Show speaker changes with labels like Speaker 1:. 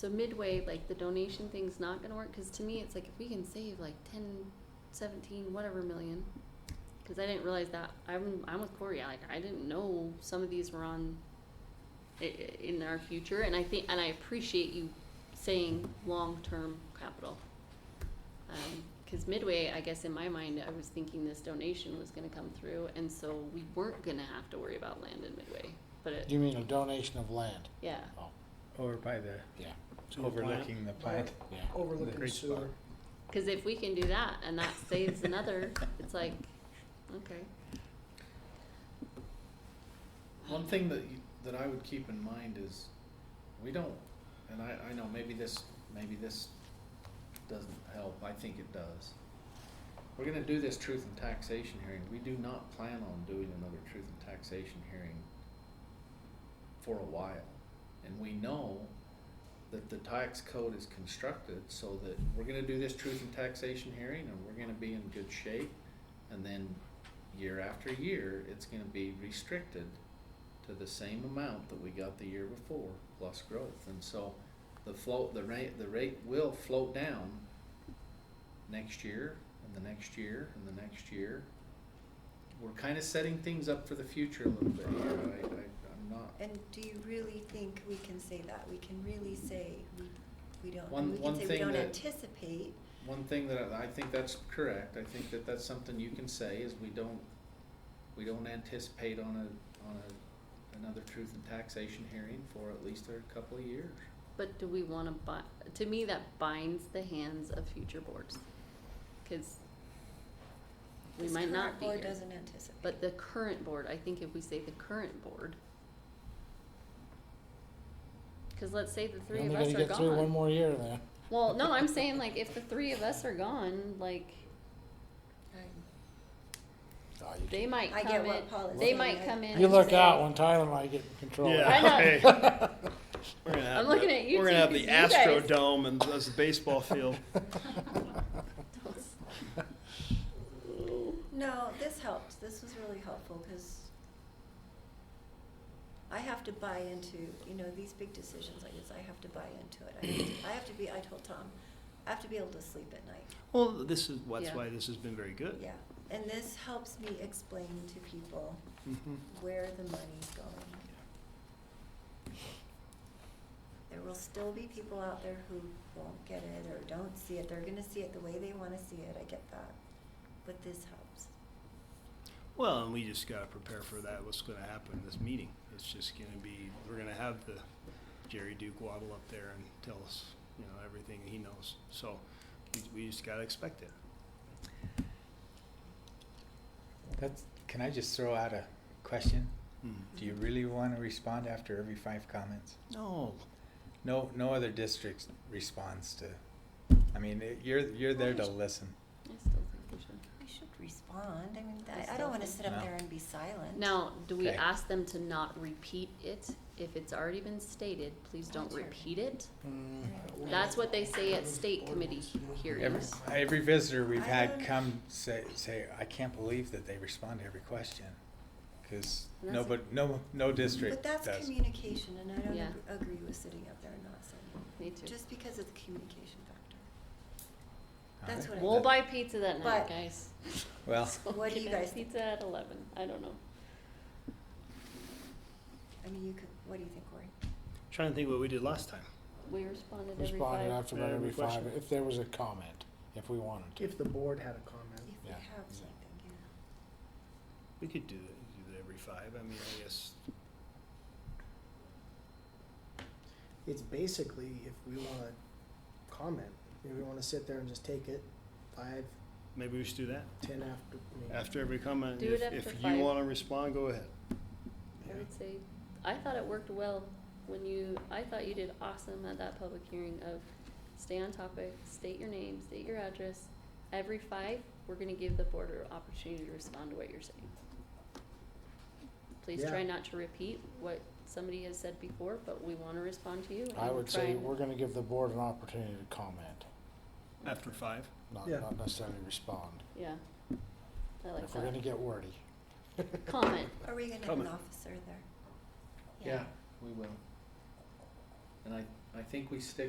Speaker 1: So midway, like the donation thing's not gonna work, cause to me, it's like if we can save like ten, seventeen, whatever million. Cause I didn't realize that, I'm, I'm with Corey, I, like, I didn't know some of these were on i- i- in our future, and I think, and I appreciate you saying long-term capital. Um, cause midway, I guess in my mind, I was thinking this donation was gonna come through, and so we weren't gonna have to worry about land in midway, but it,
Speaker 2: You mean a donation of land?
Speaker 1: yeah.
Speaker 2: Oh,
Speaker 3: Over by the,
Speaker 2: yeah,
Speaker 3: overlooking the plant.
Speaker 2: yeah.
Speaker 1: Oh,
Speaker 4: Overlooking
Speaker 3: Great spot.
Speaker 4: sewer.
Speaker 1: Because if we can do that and that saves another, it's like, okay.
Speaker 5: One thing that you, that I would keep in mind is, we don't, and I, I know maybe this, maybe this doesn't help, I think it does. We're gonna do this truth and taxation hearing, we do not plan on doing another truth and taxation hearing for a while. And we know that the tax code is constructed so that we're gonna do this truth and taxation hearing and we're gonna be in good shape. And then year after year, it's gonna be restricted to the same amount that we got the year before, plus growth. And so the float, the rate, the rate will float down next year and the next year and the next year. We're kind of setting things up for the future a little bit here. I, I, I'm not.
Speaker 6: And do you really think we can say that? We can really say we, we don't,
Speaker 5: One-
Speaker 6: we
Speaker 5: one
Speaker 6: can say we
Speaker 5: thing
Speaker 6: don't
Speaker 5: that-
Speaker 6: anticipate.
Speaker 5: One thing that I I think that's correct, I think that that's something you can say is we don't, we don't anticipate on a, on a, another truth and taxation hearing for at least a couple of years.
Speaker 1: But do we want to buy, to me, that binds the hands of future boards. Because we
Speaker 6: This
Speaker 1: might not
Speaker 6: current
Speaker 1: be
Speaker 6: board
Speaker 1: here.
Speaker 6: doesn't anticipate.
Speaker 1: But the current board, I think if we say the current board. Because let's say the three
Speaker 2: You
Speaker 1: of
Speaker 2: only
Speaker 1: us
Speaker 2: gotta
Speaker 1: are
Speaker 2: get through one
Speaker 1: gone.
Speaker 2: more year then.
Speaker 1: Well, no, I'm saying like if the three of us are gone, like
Speaker 2: Oh, you-
Speaker 1: they might
Speaker 6: I
Speaker 1: come in.
Speaker 6: get what Paul is
Speaker 1: They
Speaker 6: saying,
Speaker 1: might
Speaker 6: I-
Speaker 1: come in.
Speaker 2: You
Speaker 1: and
Speaker 2: look
Speaker 1: say-
Speaker 2: out when Tyler and I get in control.
Speaker 3: Yeah.
Speaker 1: I know.
Speaker 3: hey. We're gonna have
Speaker 1: I'm looking
Speaker 3: the,
Speaker 1: at you
Speaker 3: We're gonna
Speaker 1: two
Speaker 3: have the
Speaker 1: 'cause you guys-
Speaker 3: Astrodome and that's the baseball field.
Speaker 6: No, this helped. This was really helpful because I have to buy into, you know, these big decisions like this, I have to buy into it. I have to, I have to be, I told Tom, I have to be able to sleep at night.
Speaker 3: Well, this is what's
Speaker 1: Yeah.
Speaker 3: why this has been very good.
Speaker 6: Yeah. And this helps me explain to people
Speaker 3: Mhm.
Speaker 6: where the money's going. There will still be people out there who won't get it or don't see it. They're gonna see it the way they wanna see it, I get that. But this helps.
Speaker 3: Well, and we just gotta prepare for that. What's gonna happen in this meeting? It's just gonna be we're gonna have the Jerry Duke waddle up there and tell us, you know, everything he knows. So we, we just gotta expect it.
Speaker 7: That's, can I just throw out a question?
Speaker 3: Mm.
Speaker 7: Do
Speaker 6: Mhm.
Speaker 7: you really want to respond after every five comments?
Speaker 3: No,
Speaker 7: No, no other district responds to, I mean, it- you're, you're there to listen.
Speaker 1: I still think we should.
Speaker 6: We should respond. I mean,
Speaker 1: Yes,
Speaker 6: I, I don't
Speaker 1: definitely.
Speaker 6: wanna sit up
Speaker 7: No.
Speaker 6: there and be silent.
Speaker 1: Now, do we
Speaker 7: Okay.
Speaker 1: ask them to not repeat it? If it's already been stated, please don't
Speaker 6: That's right.
Speaker 1: repeat it.
Speaker 4: Mm.
Speaker 1: That's what they say at state committee
Speaker 7: Every,
Speaker 1: hearings.
Speaker 7: every visitor we've
Speaker 6: I
Speaker 7: had
Speaker 6: don't-
Speaker 7: come say, say, I can't believe that they respond to every question. Cause
Speaker 1: And that's-
Speaker 7: nobody, no, no
Speaker 6: But
Speaker 7: district
Speaker 6: that's
Speaker 7: does.
Speaker 6: communication and I don't
Speaker 1: Yeah.
Speaker 6: ag- agree with sitting up there and not saying
Speaker 1: Me
Speaker 6: it,
Speaker 1: too.
Speaker 6: just because of the communication factor.
Speaker 7: Huh?
Speaker 6: That's what I.
Speaker 1: We'll
Speaker 6: think.
Speaker 1: buy pizza that night,
Speaker 6: But-
Speaker 1: guys.
Speaker 7: Well,
Speaker 1: So
Speaker 6: What do you
Speaker 1: get us
Speaker 6: guys think?
Speaker 1: Pizza at eleven, I don't know.
Speaker 6: I mean, you could, what do you think, Cory?
Speaker 3: trying to think what we did last time.
Speaker 1: We responded every five.
Speaker 2: Responded after about
Speaker 3: Every
Speaker 2: every five,
Speaker 3: question.
Speaker 2: if there was a comment, if we wanted to.
Speaker 4: If the board had a comment.
Speaker 6: If we
Speaker 2: Yeah,
Speaker 6: have
Speaker 2: exactly.
Speaker 6: something, yeah.
Speaker 3: We could do that, do that every five. I mean, I guess
Speaker 4: It's basically if we wanna comment, if we wanna sit there and just take it five,
Speaker 3: maybe we should do that.
Speaker 4: ten after, I mean.
Speaker 3: After every comment,
Speaker 1: Do it
Speaker 3: if,
Speaker 1: after
Speaker 3: if
Speaker 1: five.
Speaker 3: you wanna respond, go ahead.
Speaker 1: I would say, I thought it worked well when you, I thought you did awesome at that public hearing of stay on topic, state your name, state your address. Every five, we're gonna give the board an opportunity to respond to what you're saying. Please
Speaker 4: Yeah.
Speaker 1: try not to repeat what somebody has said before, but we wanna respond to you. and
Speaker 2: I
Speaker 1: we're
Speaker 2: would say
Speaker 1: trying-
Speaker 2: we're gonna give the board an opportunity to comment,
Speaker 3: After five?
Speaker 2: not,
Speaker 4: Yeah.
Speaker 2: not necessarily respond.
Speaker 1: Yeah. I like
Speaker 2: If we're gonna
Speaker 1: that.
Speaker 2: get wordy.
Speaker 1: Comment,
Speaker 6: Are we gonna have an
Speaker 3: Comment.
Speaker 6: officer there?
Speaker 5: We will. And I, I think we stick